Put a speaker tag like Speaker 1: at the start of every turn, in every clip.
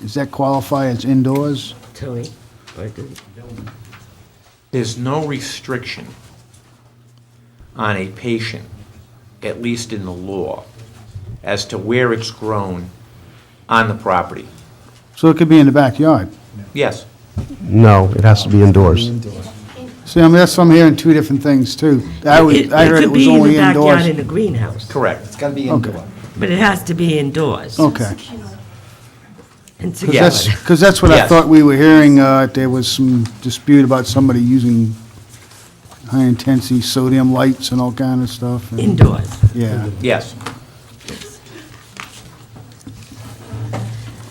Speaker 1: Does that qualify as indoors?
Speaker 2: Tony, I do.
Speaker 3: There's no restriction on a patient, at least in the law, as to where it's grown on the property.
Speaker 1: So it could be in the backyard.
Speaker 3: Yes,
Speaker 4: No, it has to be indoors.
Speaker 1: See, I mean, that's, I'm hearing two different things, too. I was,
Speaker 2: It-
Speaker 1: I heard it was only
Speaker 2: could be in the backyard
Speaker 1: indoors.
Speaker 2: in the greenhouse,
Speaker 3: correct.
Speaker 5: Gotta be
Speaker 1: Okay.
Speaker 5: indoor.
Speaker 2: but it has to be indoors.
Speaker 1: Okay.
Speaker 2: And
Speaker 3: Yes.
Speaker 2: secure.
Speaker 1: Because Oh, that's what I
Speaker 3: Yes.
Speaker 1: thought we were hearing, uh, there was some dispute about somebody using high-intensity sodium lights and all kind of stuff. and-
Speaker 2: Indoors.
Speaker 1: Yeah.
Speaker 3: Yes,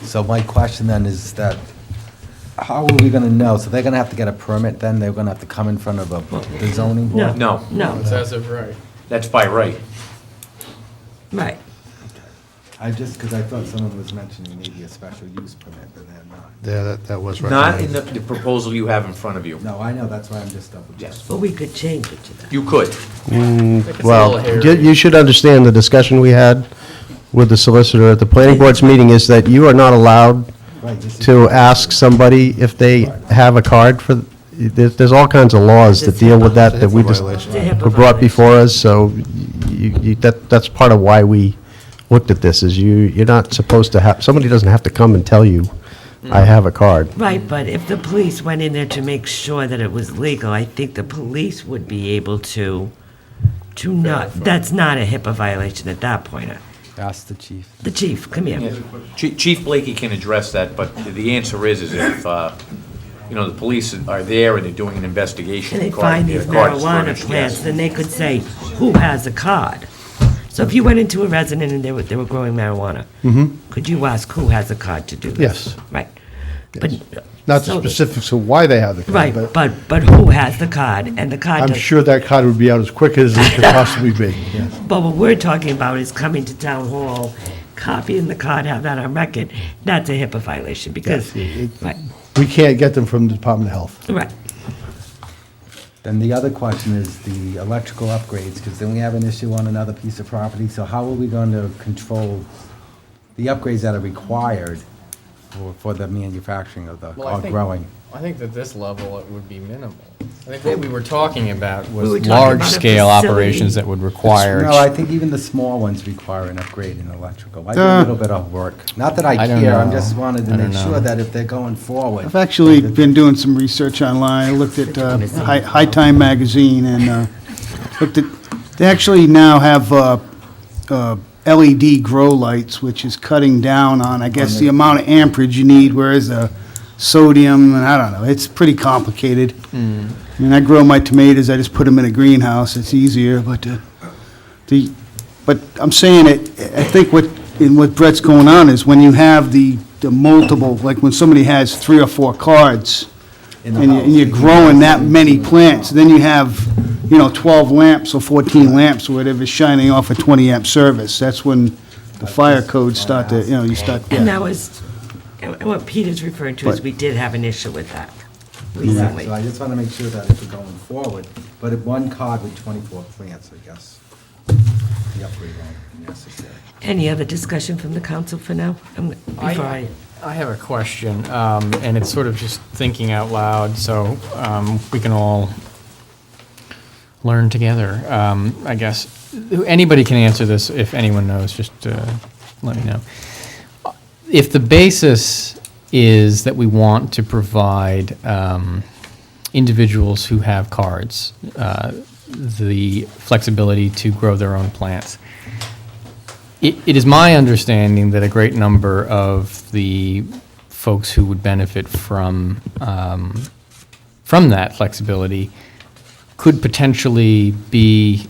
Speaker 5: So my question then is that, how are we gonna know? So they're gonna have to get a permit then? They're gonna have to come in front of a the zoning
Speaker 2: No.
Speaker 5: board?
Speaker 3: No.
Speaker 2: No,
Speaker 6: as of right.
Speaker 3: that's by right.
Speaker 2: right.
Speaker 5: I just, because I thought someone was mentioning maybe a special use permit, but they're not.
Speaker 4: Yeah, that, that was
Speaker 3: Not in the the proposal you have in front of you.
Speaker 5: No, I know, that's why I'm just double checking.
Speaker 3: Yes,
Speaker 2: But we could change it to that.
Speaker 3: you could.
Speaker 6: It's a
Speaker 4: Well,
Speaker 6: little hairy.
Speaker 4: you you should understand the discussion we had with the solicitor at the planning board's meeting is that you are not allowed
Speaker 5: Right, this is-
Speaker 4: to ask somebody if they have a card for, there's, there's all kinds of laws that deal with that, that we just were brought before us, so you, you, that, that's part of why we looked at this, is you, you're not supposed to have, somebody doesn't have to come and tell you,
Speaker 3: Mm.
Speaker 4: I have a card.
Speaker 2: Right, but if the police went in there to make sure that it was legal, I think the police would be able to, to not, that's not a HIPAA violation at that point. Uh,
Speaker 5: Ask the chief.
Speaker 2: The chief, come here.
Speaker 3: Chi- Chief Blakey can address that, but the answer is, is if, uh, you know, the police are there and they're doing an investigation.
Speaker 2: And they
Speaker 3: regarding
Speaker 2: find these
Speaker 3: their card is
Speaker 2: marijuana
Speaker 3: furnished, yes.
Speaker 2: plants, then they could say, who has a card? So if you went into a resident and they were, they were growing marijuana, could you ask who has a card to do this?
Speaker 4: Yes.
Speaker 2: Right. But
Speaker 7: Not the
Speaker 2: so-
Speaker 7: specifics of why they have the
Speaker 2: Right,
Speaker 7: card, but
Speaker 2: but, but who has the card and the card
Speaker 7: I'm
Speaker 2: does
Speaker 7: sure that card would be out as quick as it could possibly be.
Speaker 2: But what we're talking about is coming to town hall, copying the card, have that on record. That's a HIPAA violation because, right,
Speaker 7: We can't get them from the Department of Health.
Speaker 2: right.
Speaker 5: Then the other question is the electrical upgrades, because then we have an issue on another piece of property, so how are we going to control the upgrades that are required for, for the manufacturing of the,
Speaker 6: Well, I
Speaker 5: or
Speaker 6: think-
Speaker 5: growing?
Speaker 6: I think that this level, it would be minimal. I think what we were talking about
Speaker 2: were
Speaker 6: was
Speaker 2: talking about a
Speaker 6: large-scale
Speaker 2: facility.
Speaker 6: operations that would require.
Speaker 5: No, I think even the small ones require an upgrade in electrical. I do a
Speaker 1: Uh,
Speaker 5: little bit of work. Not that I
Speaker 6: I don't
Speaker 5: care, I'm
Speaker 6: know.
Speaker 5: just wanted to
Speaker 6: I don't
Speaker 5: make sure
Speaker 6: know.
Speaker 5: that if they're going forward.
Speaker 1: I've actually been doing some research online, I looked at uh, Hi- High Time Magazine, and uh, looked at, they actually now have uh, uh, LED grow lights, which is cutting down on, I guess, the amount of amperage you need, whereas the sodium, and I don't know, it's pretty complicated. I mean, I grow my tomatoes, I just put them in a greenhouse, it's easier, but uh, the, but I'm saying it, I think what, in what Brett's going on is when you have the, the multiple, like when somebody has three or four cards,
Speaker 5: in
Speaker 1: and
Speaker 5: the
Speaker 1: you- and you're
Speaker 5: house.
Speaker 1: growing that many plants, then you have, you know, 12 lamps or 14 lamps or whatever shining off a 20 amp service. That's when the fire codes start to, you know, you start, yeah.
Speaker 2: And that was, and what Peter's referring to is
Speaker 1: But-
Speaker 2: we did have an issue with that
Speaker 5: Exactly.
Speaker 2: recently.
Speaker 5: So I just want to make sure that if we're going forward, but at one card with 24 plants, I guess, the upgrade won't be necessary.
Speaker 2: Any other discussion from the council for now? Um, Before I,
Speaker 6: I have a question, um, and it's sort of just thinking out loud, so um, we can all learn together, um, I guess. Anybody can answer this, if anyone knows, just uh, let me know. If the basis is that we want to provide um, individuals who have cards uh, the flexibility to grow their own plants, it, it is my understanding that a great number of the folks who would benefit from um, from that flexibility could potentially be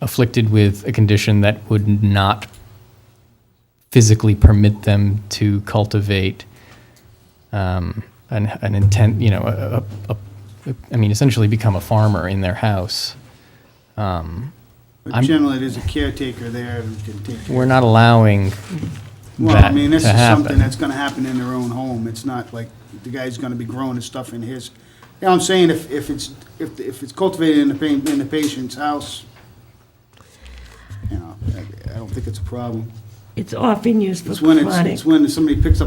Speaker 6: afflicted with a condition that would not physically permit them to cultivate um, an, an intent, you know, a, a, a- a, I mean, essentially become a farmer in their house. I'm-
Speaker 1: Generally, there's a caretaker there who can take care
Speaker 6: We're not allowing
Speaker 1: Well, I
Speaker 6: that
Speaker 1: mean, this
Speaker 6: to
Speaker 1: is something
Speaker 6: happen.
Speaker 1: that's gonna happen in their own home, it's not like the guy's gonna be growing his stuff in his, you know, what I'm saying, if, if it's, if, if it's cultivated in the pa, in the patient's house, you know, I, I don't think it's a problem.
Speaker 2: it's often used for
Speaker 1: It's when it's,
Speaker 2: chronic
Speaker 1: it's when somebody picks up.